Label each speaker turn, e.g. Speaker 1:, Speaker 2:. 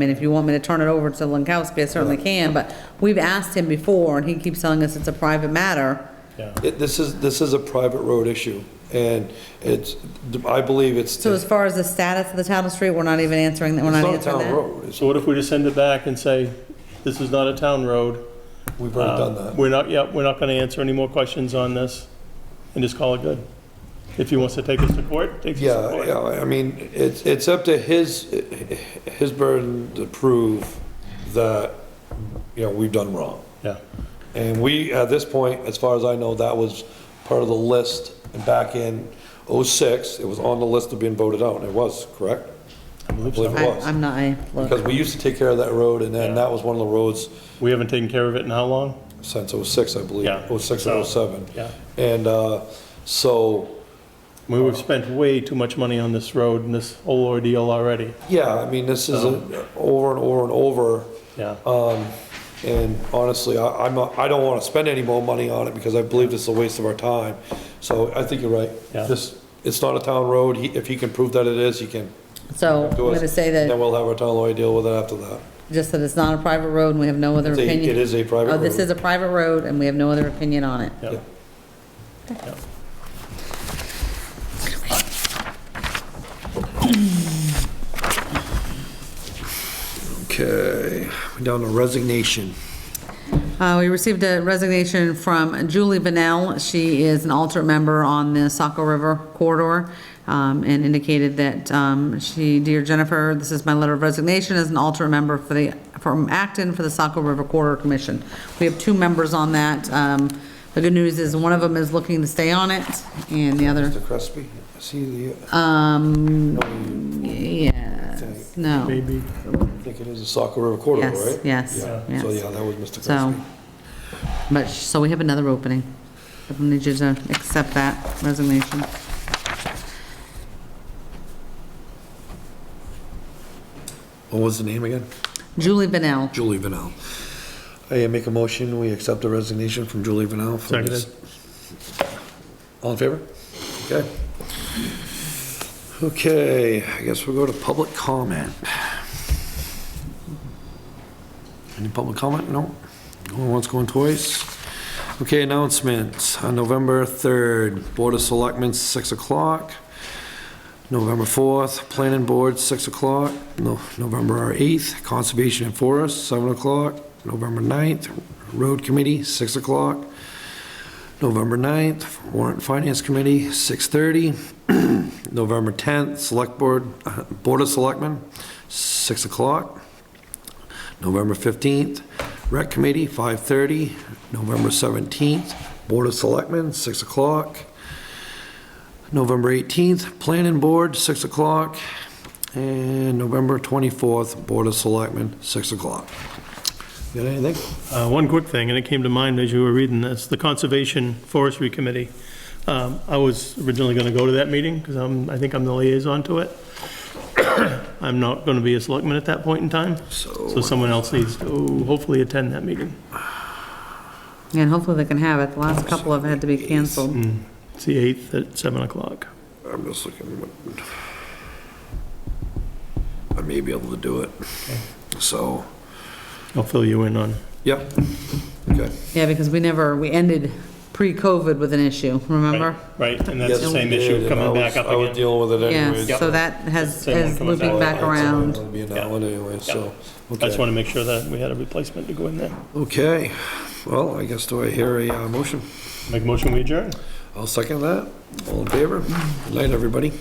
Speaker 1: I mean, if you want me to turn it over to Lankowski, I certainly can, but we've asked him before, and he keeps telling us it's a private matter.
Speaker 2: It- This is, this is a private road issue, and it's, I believe it's.
Speaker 1: So as far as the status of the title street, we're not even answering, that. we're not
Speaker 2: It's not
Speaker 1: answering
Speaker 2: a town
Speaker 1: that?
Speaker 2: road, It's-
Speaker 3: So what if we just send it back and say, this is not a town road?
Speaker 2: we've already done
Speaker 3: Uh,
Speaker 2: that.
Speaker 3: We're not, yeah, we're not going to answer any more questions on this and just call it good. If he wants to take us to court, takes us to
Speaker 2: Yeah,
Speaker 3: court.
Speaker 2: yeah, I mean, it's, it's up to his, his burden to prove that, you know, we've done wrong.
Speaker 3: Yeah.
Speaker 2: And we, at this point, as far as I know, that was part of the list and back in '06. It was on the list of being voted out, and it was, correct? I believe
Speaker 3: so.
Speaker 2: it
Speaker 1: I-
Speaker 2: was.
Speaker 1: I'm not, I,
Speaker 2: Because
Speaker 1: look,
Speaker 2: we used to take care of that road, and then
Speaker 3: Yeah.
Speaker 2: that was one of the roads
Speaker 3: We haven't taken care of it in how long?
Speaker 2: since '06, I believe,
Speaker 3: Yeah,
Speaker 2: '06
Speaker 3: so,
Speaker 2: or '07.
Speaker 3: yeah.
Speaker 2: And uh, so,
Speaker 3: I mean, We've spent way too much money on this road and this whole ordeal already.
Speaker 2: yeah, I mean, this is a- over and over and over,
Speaker 3: Yeah.
Speaker 2: Uh, and honestly, I- I'm, not- I don't want to spend any more money on it, because I believe this is a waste of our time. So I think you're right.
Speaker 3: Yeah.
Speaker 2: This, it's not a town road, He- if he can prove that it is, he can
Speaker 1: so I'm
Speaker 2: do us.
Speaker 1: gonna say that,
Speaker 2: Then we'll have our town lawyer deal with it after that.
Speaker 1: just that it's not a private road, and we have no other
Speaker 2: It's a-
Speaker 1: opinion.
Speaker 2: it is a private
Speaker 1: Oh, this
Speaker 2: road.
Speaker 1: is a private road, and we have no other opinion on it.
Speaker 3: Yeah. Yeah.
Speaker 2: Okay, we're down to resignation.
Speaker 1: Uh, We received a resignation from Julie Vanel. She is an alternate member on the Saco River corridor um, and indicated that um, she, dear Jennifer, this is my letter of resignation as an alternate member for the, from Acton for the Saco River Corridor Commission. We have two members on that. Um, The good news is one of them is looking to stay on it and the other,
Speaker 2: Mr. Crespi, see the,
Speaker 1: um,
Speaker 2: no, you
Speaker 1: yes, no.
Speaker 3: Maybe.
Speaker 2: think it is a Saco River corridor,
Speaker 1: Yes,
Speaker 2: right?
Speaker 1: yes,
Speaker 2: So,
Speaker 1: yes.
Speaker 2: yeah, that was Mr.
Speaker 1: So,
Speaker 2: Crespi.
Speaker 1: but, so we have another opening. I need you to accept that resignation.
Speaker 2: What was the name again?
Speaker 1: Julie Benel.
Speaker 2: Julie Vanel. I make a motion, we accept the resignation from Julie Vanel. for this- All in favor? Okay. Okay, I guess we'll go to public comment. Any public comment? No? Going once, going twice? Okay, announcements. On November 3rd, Board of Selectmen, 6 o'clock. November 4th, Planning Board, 6 o'clock. No, November 8th, Conservation and Forest, 7 o'clock. November 9th, Road Committee, 6 o'clock. November 9th, Warrant Finance Committee, 6:30. November 10th, Select Board, uh, Board of Selectmen, 6 o'clock. November 15th, Rec Committee, 5:30. November 17th, Board of Selectmen, 6 o'clock. November 18th, Planning Board, 6 o'clock. And November 24th, Board of Selectmen, 6 o'clock. Got anything?
Speaker 3: Uh, One quick thing, and it came to mind as you were reading this, the Conservation Forestry Committee. Um, I was originally going to go to that meeting because I'm, I think I'm the liaison to it. I'm not going to be a selectman at that point in time, so
Speaker 2: So,
Speaker 3: someone else needs to hopefully attend that meeting.
Speaker 1: And hopefully they can have it. The last couple have had to be canceled.
Speaker 3: It's the 8th at 7 o'clock.
Speaker 2: I'm just looking, what- I may be able to do it. So,
Speaker 3: I'll fill you in on,
Speaker 2: yep, okay.
Speaker 1: Yeah, because we never, we ended pre-COVID with an issue, remember?
Speaker 3: right, and that's the
Speaker 2: Yes,
Speaker 3: same
Speaker 2: we did,
Speaker 3: issue
Speaker 2: and
Speaker 3: coming
Speaker 2: I
Speaker 3: back
Speaker 2: was-
Speaker 3: up
Speaker 2: I was
Speaker 3: again.
Speaker 2: dealing with it
Speaker 1: Yeah,
Speaker 2: anyways.
Speaker 1: so that has,
Speaker 3: Same one
Speaker 1: is
Speaker 3: coming
Speaker 1: looping
Speaker 3: back.
Speaker 1: back around.
Speaker 2: It'll be an hour anyway,
Speaker 3: I
Speaker 2: so,
Speaker 3: just
Speaker 2: okay.
Speaker 3: want to make sure that we had a replacement to go in there.
Speaker 2: Okay, well, I guess do I hear a uh, motion?
Speaker 3: Make a motion, we adjourn.
Speaker 2: I'll second that. All in favor? Good night, everybody.